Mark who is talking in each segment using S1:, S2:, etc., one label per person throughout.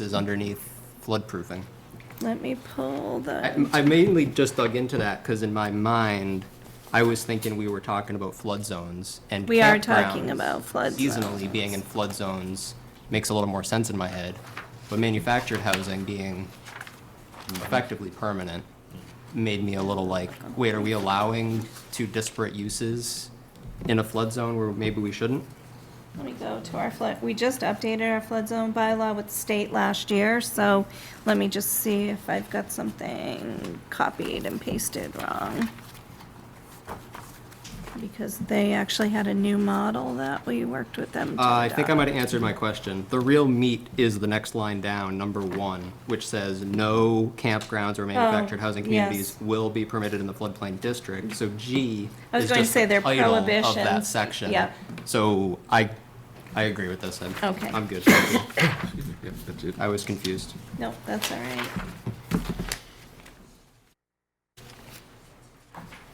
S1: is underneath flood proofing.
S2: Let me pull the,
S1: I I mainly just dug into that because in my mind, I was thinking we were talking about flood zones and
S2: We are talking
S1: campgrounds
S2: about flood
S1: Seasonally being in flood zones makes a little more sense in my head, but manufactured housing being effectively permanent made me a little like, wait, are we allowing two disparate uses in a flood zone where maybe we shouldn't?
S2: let me go to our flood, we just updated our flood zone bylaw with state last year, so let me just see if I've got something copied and pasted wrong. Because they actually had a new model that we worked with them to
S1: Uh, I think I
S2: adopt.
S1: might have answered my question. The real meat is the next line down, number one, which says, "No campgrounds or manufactured housing communities
S2: Oh, yes.
S1: will be permitted in the floodplain district." So G
S2: I was
S1: is
S2: going to
S1: just
S2: say
S1: the
S2: they're
S1: title of that
S2: prohibitions.
S1: section.
S2: Yep.
S1: So I, I agree with this. I'm-
S2: Okay.
S1: I'm good.
S3: Yeah, that's it.
S1: I was confused.
S2: Nope, that's all right.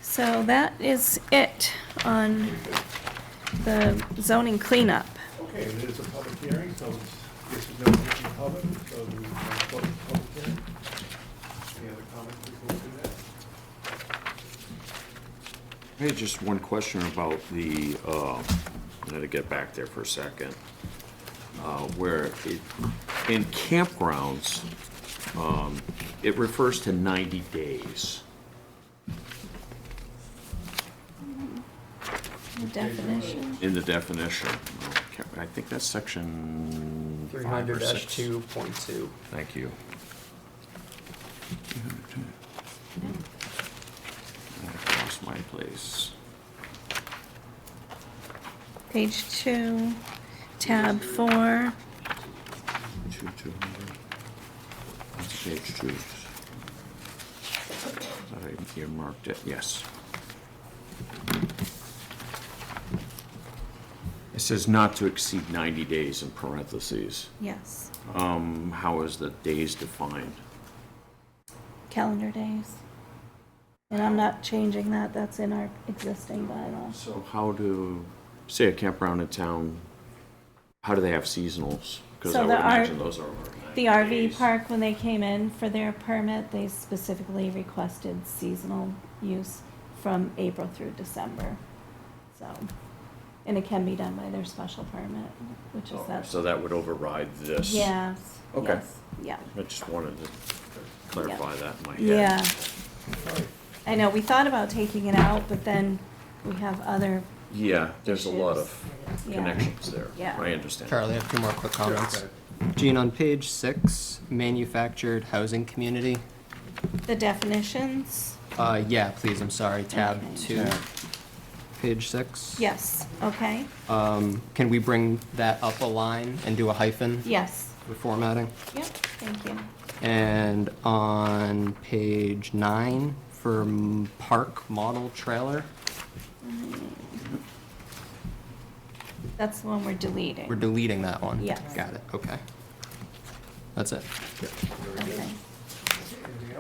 S2: So that is it on the zoning cleanup.
S4: Okay, it is a public hearing, so it's, this is no written public, so we can close the public hearing. Any other comments before we do that?
S5: I had just one question about the, uh, I had to get back there for a second, uh, where it, in campgrounds, um, it refers to 90 days.
S2: Definition.
S5: in the definition. I think that's section five or six.
S6: point two.
S5: Thank you. I lost my place.
S2: Page two, tab four.
S5: Two, two hundred. That's page two. Thought I earmarked it, yes. It says not to exceed ninety days in parentheses.
S2: Yes,
S5: Um, how is the days defined?
S2: calendar days. And I'm not changing that, that's in our existing bylaws.
S5: So how do, say a campground in town, how do they have seasonals? Because
S2: So
S5: I would
S2: the R-
S5: imagine those are over
S2: The
S5: 90
S2: RV
S5: days.
S2: park, when they came in for their permit, they specifically requested seasonal use from April through December. So, and it can be done by their special permit, which is that.
S5: Oh, So that would override this?
S2: Yes,
S5: Okay.
S2: yes, yeah,
S5: I just wanted to clarify that in my head.
S2: yeah.
S4: All right,
S2: I know, we thought about taking it out, but then we have other,
S5: Yeah, there's a lot of
S2: Yeah.
S5: connections there.
S2: Yeah.
S5: I understand.
S1: Charlie, I have two more quick
S4: sure,
S1: comments.
S4: okay.
S1: Gene, on page six, manufactured housing community.
S2: the definitions.
S1: Uh, yeah, please. I'm sorry. Tab
S2: Okay.
S1: two, page six.
S2: Yes, okay,
S1: Um, can we bring that up a line and do a hyphen?
S2: yes,
S1: For formatting?
S2: yep, thank you.
S1: And on page nine, for m- park model trailer,
S2: That's the one we're deleting.
S1: we're deleting that one?
S2: Yes.
S1: Got it, okay. That's it.
S2: Okay.
S4: Anything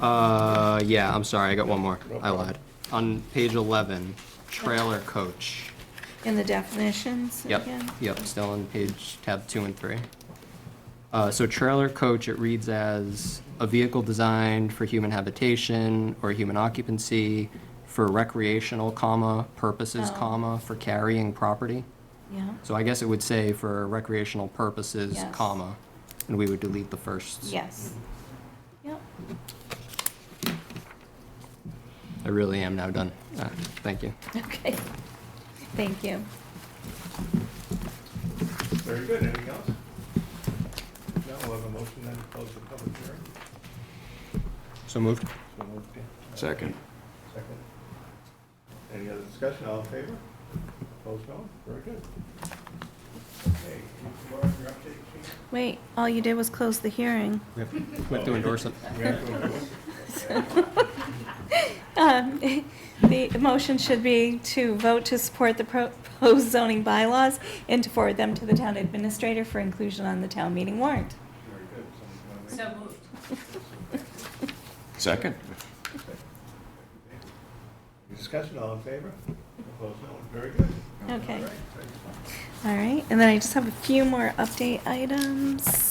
S4: else?
S1: Uh, yeah, I'm sorry, I got one more. I lied. On page eleven, trailer coach.
S2: In the definitions
S1: Yep,
S2: again?
S1: yep, still on page tab two and three. Uh, so trailer coach, it reads as a vehicle designed for human habitation or human occupancy for recreational, comma, purposes,
S2: Oh.
S1: comma, for carrying property.
S2: Yeah,
S1: So I guess it would say for recreational purposes,
S2: Yes.
S1: comma, and we would delete the first.
S2: yes. Yep,
S1: I really am now done. Uh, thank you.
S2: okay. Thank you.
S4: Very good, anything else? No, we'll have a motion then to close the public hearing.
S1: So moved.
S4: So moved, Dan.
S5: Second.
S4: Second. Any other discussion, all in favor? Opposed, no? Very good. Okay, Laura, your update, please.
S2: Wait, all you did was close the hearing.
S1: We have we have to endorse it.
S4: We have to vote.
S2: Um, The motion should be to vote to support the proposed zoning bylaws and to forward them to the town administrator for inclusion on the town meeting warrant.
S4: Very good. Someone wanna make-
S7: So moved.
S5: Second?
S4: Any Discussion, all in favor? Opposed, no one. Very good.
S2: Okay.
S4: All right, thank you.
S2: All right, and then I just have a few more update items.